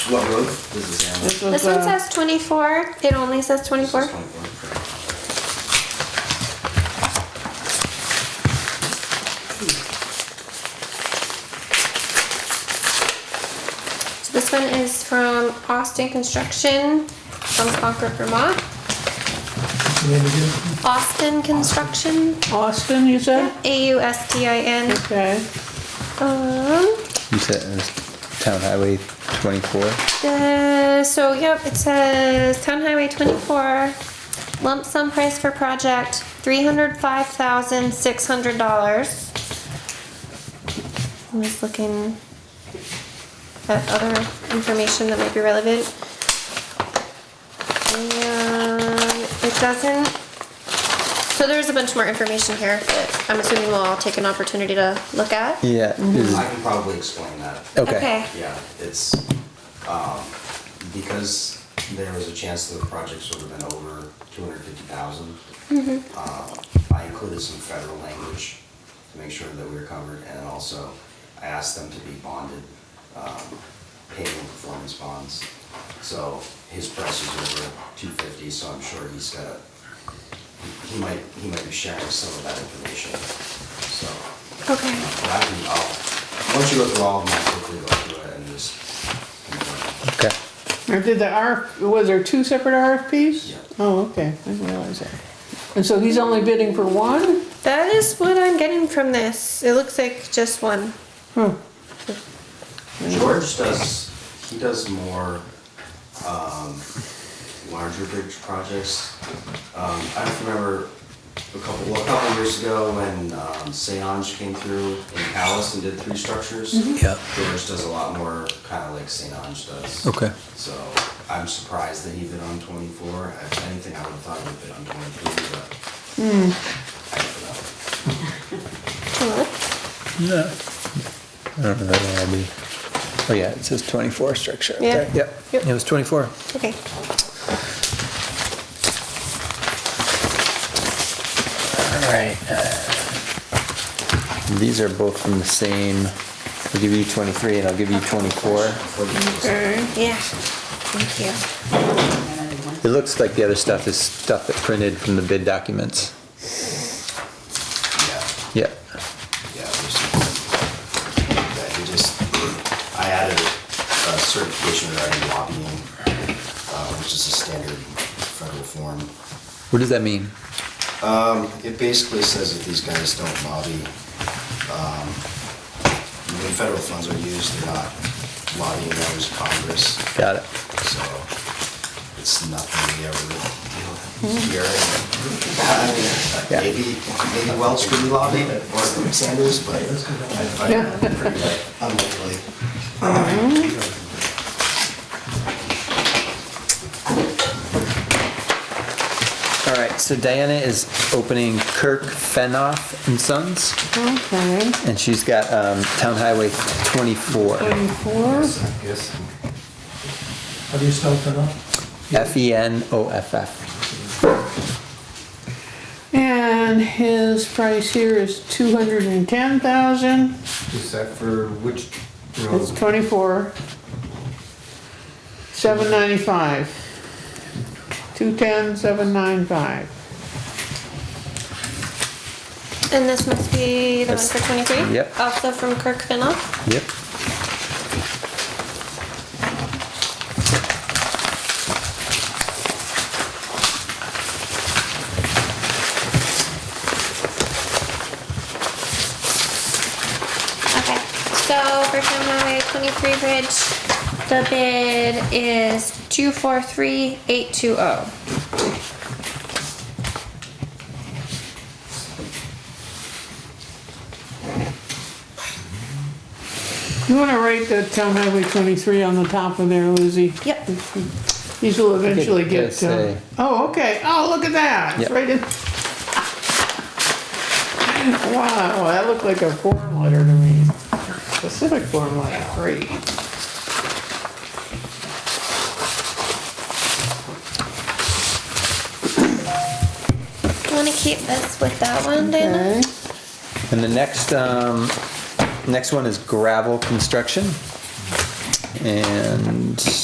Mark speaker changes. Speaker 1: What road does this handle?
Speaker 2: This was,
Speaker 3: This one
Speaker 2: uh,
Speaker 3: says 24. It only says 24. So this one is from Austin Construction from Concord, Vermont. Austin Construction,
Speaker 2: Austin, you said?
Speaker 3: A U S T I N.
Speaker 2: Okay.
Speaker 3: Um,
Speaker 4: You said it was Town Highway 24?
Speaker 3: the, so yep, it says Town Highway 24 lump sum price for project $305,600. I'm just looking at other information that might be relevant. And it doesn't. So there's a bunch more information here that I'm assuming we'll all take an opportunity to look at.
Speaker 4: Yeah. is-
Speaker 1: I can probably explain that.
Speaker 4: Mm-hmm. Okay.
Speaker 1: Yeah, it's, um, because there was a chance that the projects would have been over two hundred fifty thousand. uh, I included some federal language to make sure that we were covered, and also I asked them to be bonded, um, paying performance bonds. So his price is over two fifty, so I'm sure he's got a, he- he might, he might be sharing some of that information, so.
Speaker 3: Okay.
Speaker 1: But I can, I'll, once you go through all of them, I'll quickly go through it and just.
Speaker 4: Okay.
Speaker 2: Or did the RF, was there two separate RFPs?
Speaker 1: Yeah.
Speaker 2: Oh, okay, I didn't realize that. And so he's only bidding for one?
Speaker 3: That is what I'm getting from this. It looks like just one.
Speaker 2: Huh.
Speaker 1: George does, he does more, um, larger bridge projects. Um, I just remember a couple, well, a couple years ago when, um, Seange came through in Palace and did three structures.
Speaker 4: Yeah.
Speaker 1: George does a lot more, kinda like Seange does.
Speaker 4: Okay.
Speaker 1: So I'm surprised that he bid on twenty-four. If anything, I would've thought he would bid on twenty-three, but.
Speaker 4: Hmm.
Speaker 1: I don't know.
Speaker 4: No. I don't know that one will be. Oh, yeah, it says 24 structure. up
Speaker 3: Yeah.
Speaker 4: there. Yep.
Speaker 3: Yep.
Speaker 4: It was 24.
Speaker 3: Okay.
Speaker 4: All right. These are both from the same, I'll give you 23 and I'll give you 24.
Speaker 2: Okay.
Speaker 3: Yeah. Thank you.
Speaker 4: It looks like the other stuff is stuff that printed from the bid documents.
Speaker 1: Yeah,
Speaker 4: Yep.
Speaker 1: yeah, there's that he just, I added a certification regarding lobbying, uh, which is a standard federal form.
Speaker 4: What does that mean?
Speaker 1: It basically says if these guys don't lobby, um, when federal funds are used, they're not lobbying members of Congress,
Speaker 4: Got it.
Speaker 1: so it's nothing we ever really deal with here. Uh,
Speaker 4: Yeah.
Speaker 1: Maybe, maybe Welch could be lobbying, or Sanders, but I find it pretty unlikely.
Speaker 4: All right, so Diana is opening Kirk Fenoff and Sons,
Speaker 2: Okay,
Speaker 4: and she's got um, Town Highway 24.
Speaker 2: twenty-four,
Speaker 1: Yes.
Speaker 5: How do you spell Fennel?
Speaker 4: F E N O F F.
Speaker 2: and his price here is two hundred and ten thousand,
Speaker 5: Is that for which road?
Speaker 2: it's twenty-four. Seven ninety-five. Two-ten, seven nine five.
Speaker 3: And this must be the one
Speaker 4: That's-
Speaker 3: for 23?
Speaker 4: yep.
Speaker 3: Also from Kirk Finoff?
Speaker 4: Yep.
Speaker 3: Okay. So for Town Highway 23 Bridge, the bid is 243820.
Speaker 2: You wanna write the town highway twenty-three on the top of there, Lizzie?
Speaker 3: Yep.
Speaker 2: These will eventually get,
Speaker 4: just
Speaker 2: uh,
Speaker 4: say-
Speaker 2: oh, okay, oh, look at that, it's
Speaker 4: Yep.
Speaker 2: right in. Wow, that looked like a form letter to me, specific form letter, great.
Speaker 3: You want to keep this with that one, Dana?
Speaker 2: Okay,
Speaker 4: And the next, um, next one is gravel construction. And